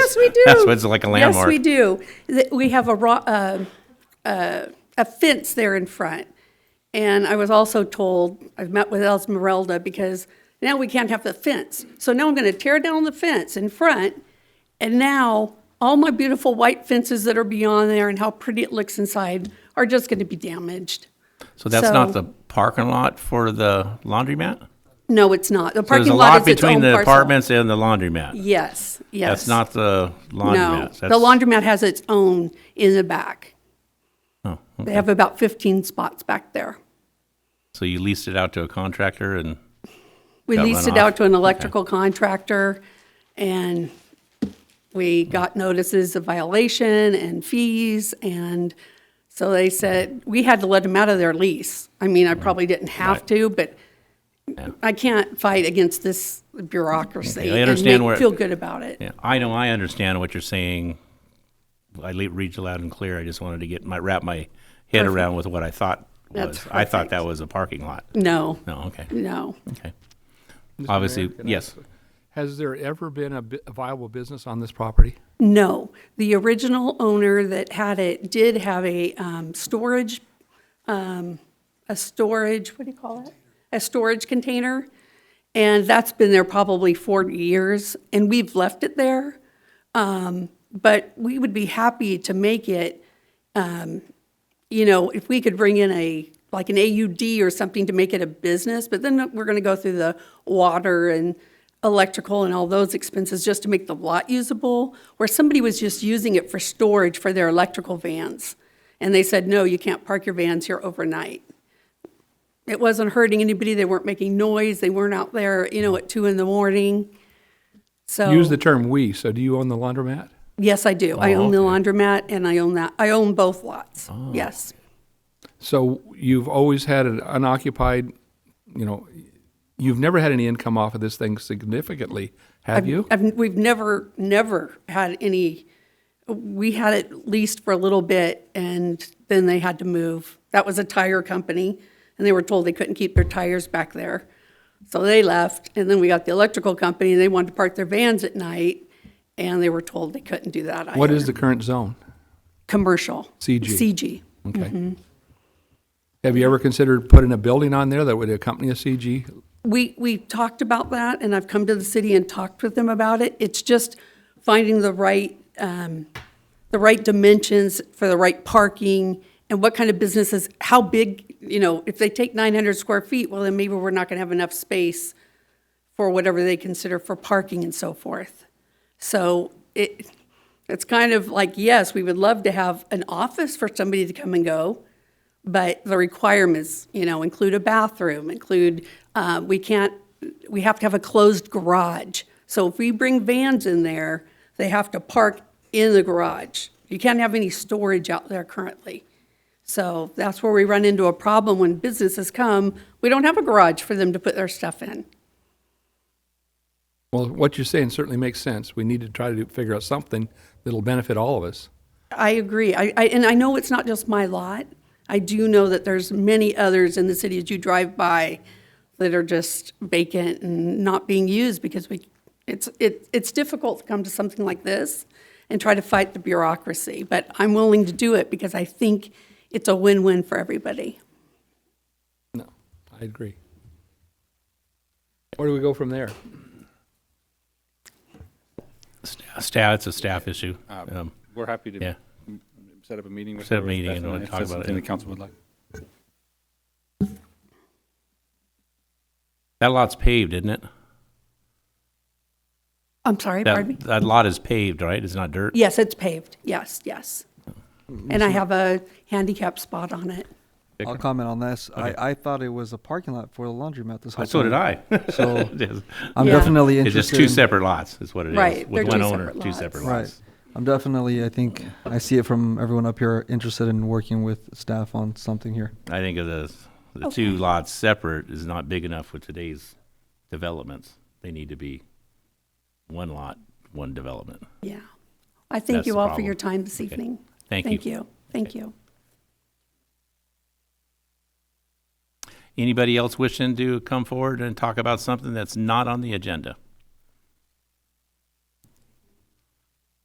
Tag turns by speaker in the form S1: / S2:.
S1: Yes, we do.
S2: That's what's like a
S1: Yes,
S2: landmark.
S1: we do. Th- We have a ro- uh, uh, a fence there in front. And I was also told, I've met with Esmeralda because now we can't have the fence. So now I'm going to tear down the fence in front. And now all my beautiful white fences that are beyond there and how pretty it looks inside are just going to be damaged.
S2: So that's not
S1: So-
S2: the parking lot for the laundromat?
S1: No, it's not. The
S2: So There's
S1: parking
S2: a
S1: lot
S2: lot
S1: is its
S2: between
S1: own
S2: the
S1: parcel.
S2: apartments and the laundromat.
S1: Yes, yes.
S2: That's not the
S1: No,
S2: laundromat.
S1: the laundromat has its own in the back.
S2: laundromat.
S1: They have about 15 spots back there.
S2: So you leased it out to a contractor and,
S1: We
S2: Got
S1: leased
S2: run
S1: it
S2: off.
S1: out to an electrical contractor, and we got notices of violation and fees, and so they said, we had to let them out of their lease. I mean, I probably didn't have
S2: Right.
S1: to, but I can't fight against this bureaucracy
S2: I
S1: and
S2: understand where-
S1: make, feel good about it.
S2: yeah, I know, I understand what you're saying. I le- read you loud and clear. I just wanted to get my, wrap my head around with what I thought was.
S1: That's
S2: I thought
S1: perfect. Mm.
S2: that was a parking lot.
S1: No,
S2: No, okay,
S1: no.
S2: okay.
S3: Mr. Mayor,
S2: Obviously,
S3: can I
S2: yes.
S3: ask- Has there ever been a bu- a viable business on this property?
S1: No, the original owner that had it did have a um, storage, um, a storage, what do you call it? A storage container, and that's been there probably 40 years, and we've left it there. Um, But we would be happy to make it, um, you know, if we could bring in a, like an AUD or something to make it a business, but then we're going to go through the water and electrical and all those expenses just to make the lot usable, where somebody was just using it for storage for their electrical vans. And they said, no, you can't park your vans here overnight. It wasn't hurting anybody. They weren't making noise. They weren't out there, you know, at two in the morning. So.
S3: Use the term "we." So, do you own the laundromat?
S1: Yes, I do. I
S2: Oh,
S1: own the
S2: okay.
S1: laundromat and I own that, I own both lots.
S3: Oh.
S1: Yes,
S3: So, you've always had an unoccupied. You know, you've never had any income off of this thing significantly, have you?
S1: I've, we've never, never had any, we had it leased for a little bit and then they had to move. That was a tire company and they were told they couldn't keep their tires back there. So they left and then we got the electrical company and they wanted to park their vans at night and they were told they couldn't do that either.
S3: what is the current zone?
S1: Commercial.
S3: CG.
S1: CG.
S3: Okay. Have you ever considered putting a building on there that would accompany a CG?
S1: We, we talked about that, and I've come to the city and talked with them about it. It's just finding the right, um, the right dimensions for the right parking, and what kind of businesses, how big, you know, if they take 900 square feet, well, then maybe we're not going to have enough space for whatever they consider for parking and so forth. So it, it's kind of like, yes, we would love to have an office for somebody to come and go, but the requirements, you know, include a bathroom, include, uh, we can't, we have to have a closed garage. So if we bring vans in there, they have to park in the garage. You can't have any storage out there currently. So that's where we run into a problem when businesses come, we don't have a garage for them to put their stuff in.
S3: Well, what you're saying certainly makes sense. We need to try to do- figure out something that'll benefit all of us.
S1: I agree. I, I, and I know it's not just my lot. I do know that there's many others in the city as you drive by that are just vacant and not being used because we, it's, it, it's difficult to come to something like this and try to fight the bureaucracy. But I'm willing to do it because I think it's a win-win for everybody.
S3: No, I agree. Where do we go from there?
S2: Staff, it's a staff issue.
S3: Uh,
S2: Um,
S4: We're happy to
S2: Yeah.
S4: m- set up a meeting with
S2: Set up a
S4: whoever's
S2: meeting
S4: best
S2: and
S4: on
S2: we'll
S4: if
S2: talk
S4: that's
S2: about it,
S4: something
S2: yeah.
S4: the council would like.
S2: That lot's paved, isn't it?
S1: I'm sorry, pardon me?
S2: That, that lot is paved, right? It's not dirt?
S1: Yes, it's paved. Yes, yes. And I have a handicap spot on it.
S5: I'll comment on this. I, I thought it was a parking lot for the laundromat this whole
S2: So did
S5: time.
S2: I.
S5: So
S2: It is.
S5: I'm
S1: Yeah.
S5: definitely
S2: It's just
S5: interested.
S2: two
S5: in-
S2: separate lots, is what it is.
S1: Right,
S2: With
S1: they're
S2: one
S1: two
S2: owner,
S1: separate
S2: two
S1: lots.
S2: separate
S5: Right.
S2: lots.
S5: I'm definitely, I think, I see it from everyone up here interested in working with staff on something here.
S2: I think of the, the two lots separate is not big enough with today's developments. They need to be one lot, one development.
S1: Yeah. I thank
S2: That's
S1: you
S2: the
S1: all for your
S2: problem.
S1: time this evening.
S2: Thank you.
S1: Thank you. Thank you.
S2: Anybody else wishing to come forward and talk about something that's not on the agenda?